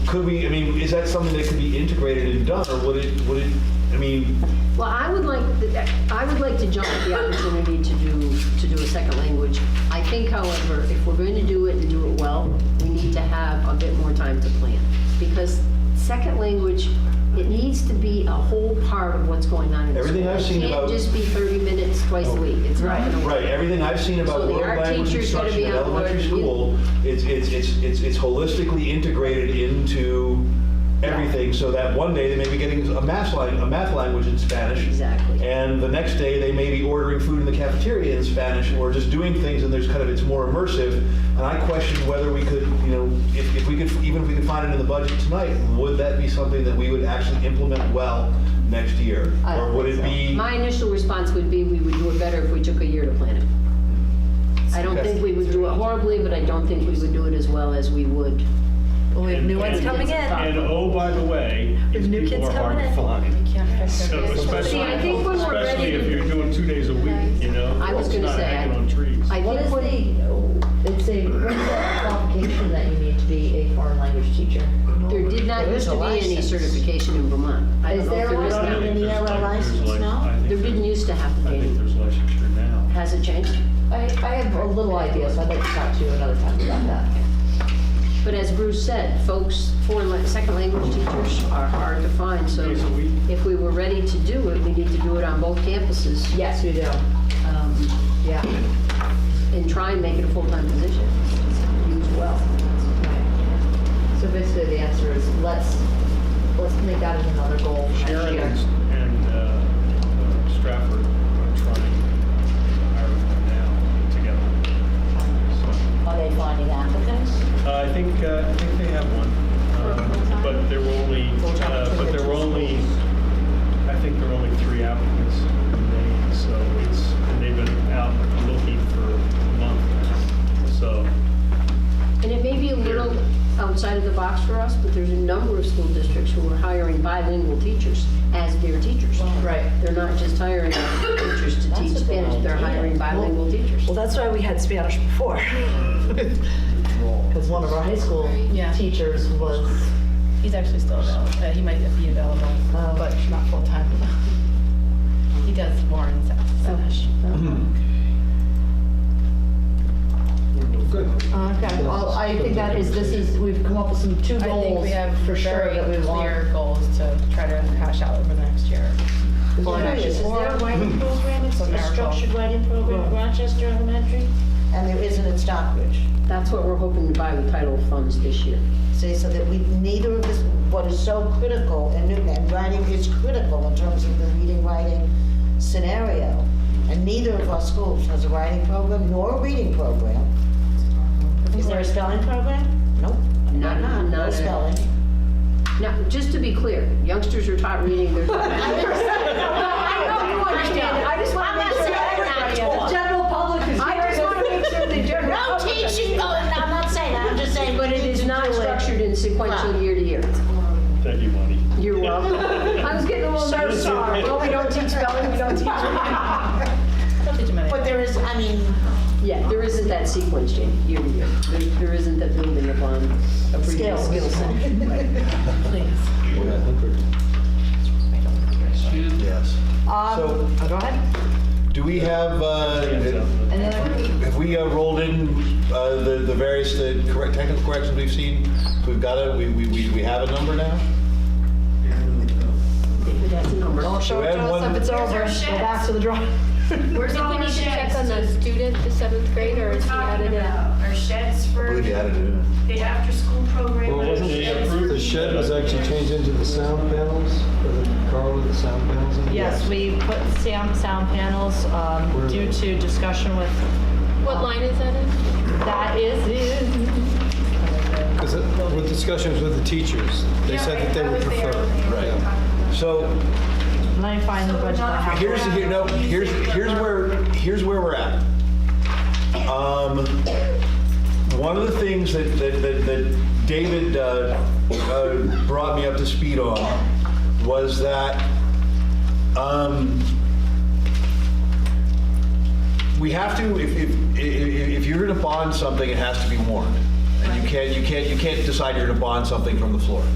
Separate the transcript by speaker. Speaker 1: could we, I mean, is that something that could be integrated and done, or would it, would it, I mean,
Speaker 2: Well, I would like, I would like to jump at the opportunity to do, to do a second language. I think, however, if we're going to do it and do it well, we need to have a bit more time to plan. Because second language, it needs to be a whole part of what's going on in the school.
Speaker 1: Everything I've seen
Speaker 2: It
Speaker 1: about-
Speaker 2: can't just be 30 minutes twice a week. It's not going to work.
Speaker 1: right, everything I've seen
Speaker 2: So
Speaker 1: about
Speaker 2: the
Speaker 1: world
Speaker 2: art
Speaker 1: language
Speaker 2: teacher's gotta
Speaker 1: instruction
Speaker 2: be
Speaker 1: in
Speaker 2: on board
Speaker 1: elementary
Speaker 2: with you.
Speaker 1: school, it's, it's, it's, it's it's holistically integrated into everything, so that one day they may be getting a math lang, a math language in Spanish.
Speaker 2: Exactly.
Speaker 1: And the next day, they may be ordering food in the cafeteria in Spanish, or just doing things, and there's kind of, it's more immersive. And I question whether we could, you know, if, if we could, even if we could find it in the budget tonight, would that be something that we would actually implement well next year?
Speaker 2: I don't
Speaker 1: Or would
Speaker 2: think
Speaker 1: it
Speaker 2: so.
Speaker 1: be?
Speaker 2: My initial response would be, we would do it better if we took a year to plan it. I don't think we would do it horribly, but I don't think we would do it as well as we would.
Speaker 3: Well, we have new ones
Speaker 4: And-
Speaker 3: coming in.
Speaker 4: And oh, by the way,
Speaker 3: There's
Speaker 4: these
Speaker 3: new
Speaker 4: people
Speaker 3: kids
Speaker 4: are hard
Speaker 3: coming
Speaker 4: to
Speaker 3: in.
Speaker 4: find. So
Speaker 2: kids.
Speaker 4: especially,
Speaker 2: See, I think when we're ready
Speaker 4: especially
Speaker 2: to-
Speaker 4: if you're doing two days a week, you know?
Speaker 2: I was
Speaker 4: it's
Speaker 2: gonna
Speaker 4: not
Speaker 2: say,
Speaker 4: hanging
Speaker 2: I-
Speaker 4: on trees.
Speaker 2: I
Speaker 5: What
Speaker 2: think
Speaker 5: is
Speaker 2: what-
Speaker 5: the, it's a what is the qualification that you need to be a foreign language teacher?
Speaker 2: There did not
Speaker 3: There is
Speaker 2: used
Speaker 3: a
Speaker 2: to be any
Speaker 3: license.
Speaker 2: certification in Vermont. I don't
Speaker 5: Is
Speaker 2: know if
Speaker 5: there
Speaker 2: there
Speaker 5: one?
Speaker 2: is
Speaker 4: I
Speaker 2: now.
Speaker 4: think
Speaker 5: Even
Speaker 4: there's
Speaker 5: narrow
Speaker 4: like- there's
Speaker 5: license
Speaker 4: like-
Speaker 5: now?
Speaker 4: I think
Speaker 2: There didn't used to have to
Speaker 4: I think
Speaker 2: be.
Speaker 4: there's licensure now.
Speaker 2: Has it changed?
Speaker 5: I, I have a little idea, so I'd like to talk to you another time about that.
Speaker 2: But as Bruce said, folks, foreign, la- second language teachers are hard to find, so
Speaker 4: Days a week.
Speaker 2: if we were ready to do it, we need to do it on both campuses
Speaker 5: Yes, we do,
Speaker 2: um,
Speaker 5: yeah.
Speaker 2: and try and make it a full-time position. Use well.
Speaker 5: Right. So basically, the answer is, let's, let's make that as another goal next
Speaker 4: Sharon
Speaker 5: year.
Speaker 4: and and, uh, uh, Stratford are trying to hire them now together. So,
Speaker 5: Are they finding applicants?
Speaker 4: uh, I think, uh, I think they have one. Um, But there were only, uh, but there were only, I think there were only three applicants remaining. So it's, and they've been out looking for a month now. So
Speaker 2: And it may be a little outside of the box for us, but there's a number of school districts who are hiring bilingual teachers as their teachers.
Speaker 5: Right.
Speaker 2: They're not just hiring teachers to teach
Speaker 5: That's a good
Speaker 2: Spanish, they're
Speaker 5: idea.
Speaker 2: hiring bilingual teachers.
Speaker 3: Well, that's why we had Spanish before.
Speaker 5: Because one of our high school
Speaker 6: Yeah.
Speaker 5: teachers was
Speaker 6: He's actually still available. Uh, he might be available,
Speaker 5: Oh.
Speaker 6: but not full time. he does more in Spanish.
Speaker 5: Okay, well, I think that is, this is, we've come up with some two
Speaker 6: I think
Speaker 5: goals
Speaker 6: we have
Speaker 5: for sure
Speaker 6: very
Speaker 5: that we
Speaker 6: clear
Speaker 5: want.
Speaker 6: goals to try to hash out over the next year.
Speaker 5: Well,
Speaker 7: There is, is there a writing program, it's
Speaker 6: It's a
Speaker 7: a
Speaker 6: miracle.
Speaker 7: structured writing program at Rochester Elementary? And there isn't at Stockbridge.
Speaker 2: That's what we're hoping to buy with title funds this year.
Speaker 7: See, so that we, neither of us, what is so critical, and, new- and writing is critical in terms of the reading, writing scenario. And neither of our schools has a writing program nor a reading program. Is there a spelling program? Nope.
Speaker 2: Not-
Speaker 7: Not,
Speaker 2: not
Speaker 7: no
Speaker 2: at-
Speaker 7: spelling.
Speaker 2: Now, just to be clear, youngsters are taught reading, they're taught. I know you understand, I just want to make sure.
Speaker 5: The general public is
Speaker 2: I just want to make sure the general.
Speaker 7: No teaching, no, I'm not saying, that. I'm just saying,
Speaker 2: But it is not structured in sequential year to year.
Speaker 4: thank you, Monty.
Speaker 2: You're welcome. I was getting a little nervous.
Speaker 4: sorry.
Speaker 2: Well, we don't teach spelling, we don't teach.
Speaker 6: Don't teach him anything.
Speaker 7: But there is, I mean,
Speaker 2: Yeah, there isn't that sequence, Jane, year to year. There- There isn't that building upon a previous
Speaker 7: Skills.
Speaker 2: skill set.
Speaker 6: Please.
Speaker 1: Yes. So,
Speaker 5: Um, go ahead.
Speaker 1: do we have, uh, have we uh, rolled in uh, the the various, the correct, technical corrections we've seen? We've got a, we, we, we we have a number now?
Speaker 2: That's a number.
Speaker 3: Don't show it to
Speaker 1: Red one-
Speaker 3: us if it's over. Go back to the drawing.
Speaker 8: Where's all our sheds?
Speaker 9: student, the seventh grader,
Speaker 8: We're talking about our sheds
Speaker 1: I
Speaker 8: for
Speaker 1: believe you added it in.
Speaker 8: the after-school program.
Speaker 10: Well, wasn't
Speaker 8: our
Speaker 10: it
Speaker 8: sheds
Speaker 10: approved,
Speaker 8: for-
Speaker 10: the shed was actually changed into the sound panels, or the car with the sound panels in it?
Speaker 3: Yes.
Speaker 6: Yes, we put sound, sound panels um,
Speaker 10: Where are
Speaker 6: due
Speaker 10: they?
Speaker 6: to discussion with, um,
Speaker 9: What line is that in?
Speaker 6: that is,
Speaker 10: Because it- with discussions with the teachers, they
Speaker 8: Yeah,
Speaker 10: said
Speaker 8: right,
Speaker 10: that they
Speaker 8: I
Speaker 10: would
Speaker 8: was there
Speaker 10: prefer.
Speaker 8: when they were
Speaker 10: Yeah.
Speaker 8: talking about it.
Speaker 1: So,
Speaker 6: let me find the budget. I have.
Speaker 1: Here's, here, no, here's, here's where, here's where we're at. Um, one of the things that, that, that- that David, uh, uh, brought me up to speed on was that, um, we have to, if, if, i- i- if you're gonna bond something, it has to be warned. And you can't, you can't, you can't decide you're going to bond something from the floor.